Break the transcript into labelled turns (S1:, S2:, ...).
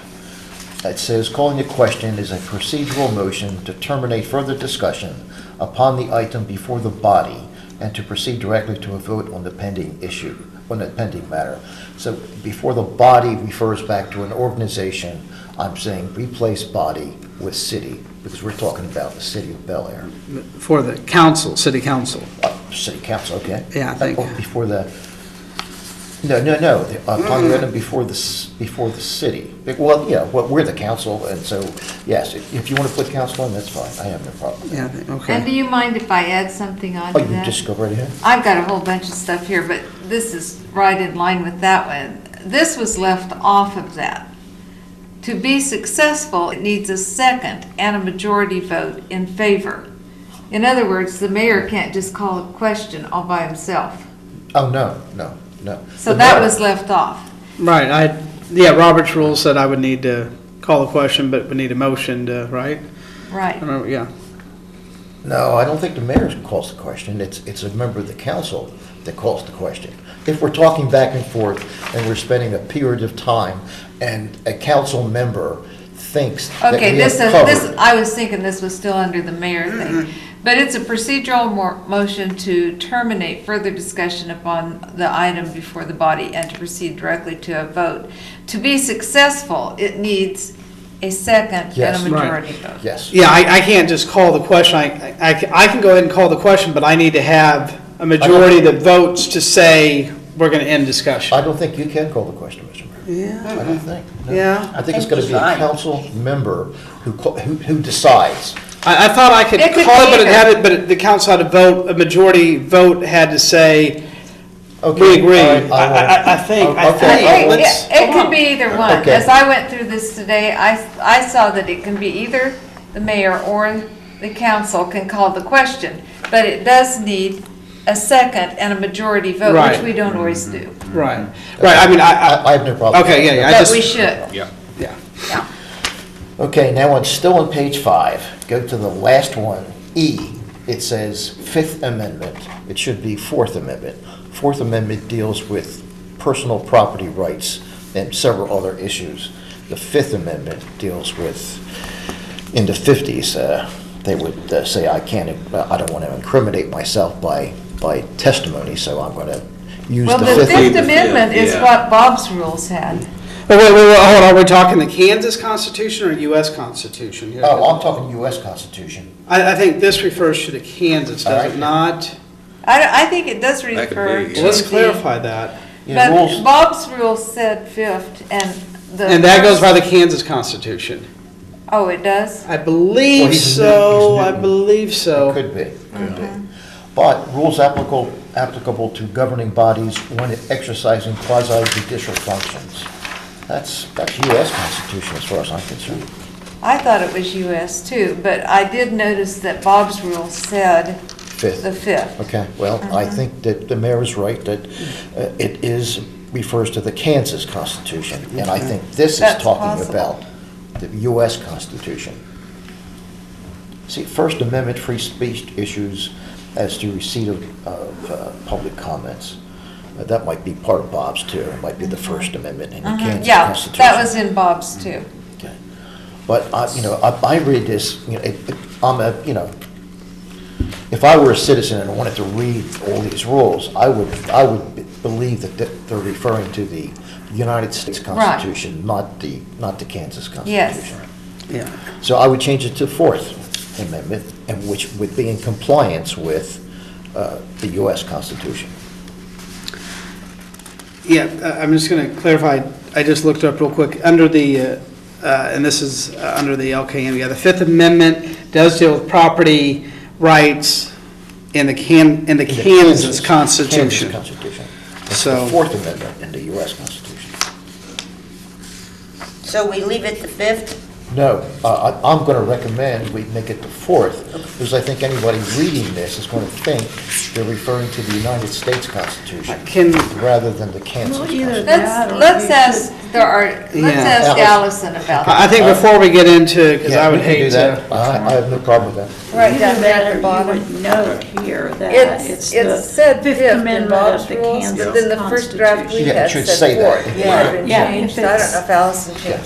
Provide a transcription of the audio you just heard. S1: that says calling the question is a procedural motion to terminate further discussion upon the item before the body and to proceed directly to a vote on the pending issue, on the pending matter. So before the body refers back to an organization, I'm saying replace body with city, because we're talking about the city of Bel Air.
S2: for the council, city council.
S1: Uh, City council, okay.
S2: Yeah, I think-
S1: Oh, Before the, no, no, no, the-
S2: Mm.
S1: upon the item before the, s- before the city. It- Well, yeah, well, we're the council, and so, yes, if if you want to put council on, that's fine, I have no problem.
S2: Yeah, I think-
S3: And do
S2: okay.
S3: you mind if I add something on
S1: Oh,
S3: to
S1: you
S3: that?
S1: just go right ahead.
S3: I've got a whole bunch of stuff here, but this is right in line with that one. This was left off of that. To be successful, it needs a second and a majority vote in favor. In other words, the mayor can't just call a question all by himself.
S1: Oh, no, no, no.
S3: So
S1: The
S3: that
S1: mayor-
S3: was left off.
S2: Right, I, yeah, Robert's rule said I would need to call a question, but we need a motion to, right? I
S3: Right.
S2: remember, yeah.
S1: No, I don't think the mayor calls the question, it's, it's a member of the council that calls the question. If we're talking back and forth, and we're spending a period of time, and a council member thinks that
S3: Okay,
S1: we have
S3: this is,
S1: covered-
S3: this, I was thinking this was still under the mayor thing. But it's a procedural mo- motion to terminate further discussion upon the item before the body and to proceed directly to a vote. To be successful, it needs a second and
S1: Yes.
S3: a
S1: Right.
S3: majority vote.
S1: Yes.
S2: Yeah, I, I can't just call the question, I, I, ca- I can go ahead and call the question, but I need to have a majority of the votes to say we're gonna end discussion.
S1: I don't think you can call the question, Mr. Mayor.
S2: Yeah,
S1: I don't think. no.
S2: Yeah.
S1: I think it's going to be a
S4: Decide.
S1: council member who, co- who who decides.
S2: I, I thought I could
S3: It could
S2: call it,
S3: be
S2: but it
S3: either.
S2: had it, but it- the council had to vote, a majority vote had to say, we
S1: Okay,
S2: agree.
S1: all
S2: I,
S1: right, I will-
S2: I, I think, I
S1: Okay.
S3: It,
S2: think,
S3: it-
S2: let's.
S3: it could be either one.
S1: Okay.
S3: As I went through this today, I, I saw that it can be either the mayor or the council can call the question. But it does need a second and a majority vote, which
S2: Right. Mm-hmm.
S3: we don't always do.
S2: Right, right, I mean, I,
S1: I I have no
S2: I,
S1: problem.
S2: okay, yeah, yeah, I
S3: But we
S2: just,
S3: should.
S2: yeah.
S1: Okay, now on, still on page five, go to the last one, E. It says Fifth Amendment. It should be Fourth Amendment. Fourth Amendment deals with personal property rights and several other issues. The Fifth Amendment deals with, in the 50s, uh, they would uh, say, I can't, I don't want to incriminate myself by, by testimony, so I'm going to use
S3: Well,
S1: the
S3: the
S1: Fifth.
S3: Fifth
S1: Amendment.
S3: Amendment is
S4: yeah.
S3: what Bob's rules had.
S2: Wait, wait, wait, wait, hold on, we're talking the Kansas Constitution or U.S. Constitution? here?
S1: Oh, I'm talking U.S. Constitution.
S2: I, I think this refers to the Kansas,
S1: All
S2: does
S1: right.
S2: it not?
S3: I, I think it does refer
S4: That could
S3: to the.
S4: be, yeah.
S2: Well, Let's clarify that.
S1: Yeah, rules-
S3: But Bob's rule said fifth and the.
S2: And that goes by
S3: first-
S2: the Kansas Constitution.
S3: Oh, it does?
S2: I believe
S1: he's new-
S2: so,
S1: he's
S2: I
S1: new.
S2: believe
S1: It
S2: so.
S1: could be, could be. But rules applicable, applicable to governing bodies when exercising quasi-judicial functions. That's, that's US Constitution as far as I'm concerned.
S3: I thought it was US too, but I did notice that Bob's rule said the
S1: Fifth.
S3: fifth.
S1: Okay, well, I
S3: Uh-huh.
S1: think that the mayor is right, that uh, it is, refers to the Kansas Constitution. And I think this is
S3: That's
S1: talking
S3: possible.
S1: about the US Constitution. See, First Amendment free speech issues as to receipt of, of uh, public comments. Uh, That might be part of Bob's too, it might be the First Amendment in the Kansas
S3: Uh-huh. Yeah,
S1: Constitution.
S3: that was in Bob's too.
S1: Okay. But, I- you know, I I read this, you know, it- it- I'm a, you know, if I were a citizen and wanted to read all these rules, I would, I would be- believe that th- they're referring to the United States Constitution, not the, not the Kansas
S3: Yes.
S1: Constitution.
S2: Yeah,
S1: So I would change it to Fourth Amendment, and which would be in compliance with uh, the U.S. Constitution.
S2: yeah, I- I'm just gonna clarify, I just looked up real quick, under the, uh, uh, and this is uh, under the LKM, yeah, the Fifth Amendment does deal with property rights in the Can, in the Kansas Constitution.
S1: Kansas Constitution. It's
S2: So-
S1: the Fourth Amendment in the U.S. Constitution.
S4: So we leave it the fifth?
S1: No, uh, I- I'm going to recommend we make it the fourth, because I think anybody reading this is going to think they're referring to the United States Constitution
S2: Can,
S1: rather than the Kansas
S5: Well,
S1: Constitution.
S5: either that
S3: Let's, let's
S5: or you
S3: ask, there are, let's
S2: Yeah.
S3: ask
S1: Alice.
S3: Allison about
S2: I I
S3: that.
S2: think before we get into, because
S1: Yeah,
S2: I
S1: we
S2: would
S1: can do
S2: hate to.
S1: that. I I have no problem with
S3: Right
S5: Either
S3: down there
S5: that
S3: at
S5: or
S3: the
S5: you
S3: bottom.
S5: would note here that it's
S3: It's, it's
S5: the
S3: said
S5: Fifth
S3: fifth in
S5: Amendment
S3: Bob's
S5: of the
S3: rules,
S5: Kansas
S3: but then the first draft we
S5: Constitution.
S1: Yeah, it
S3: had
S1: should
S3: said
S1: say that.
S3: fourth. It might have been
S5: Yeah,
S3: changed.
S5: if
S3: So I don't
S5: it's-
S3: know if Allison changed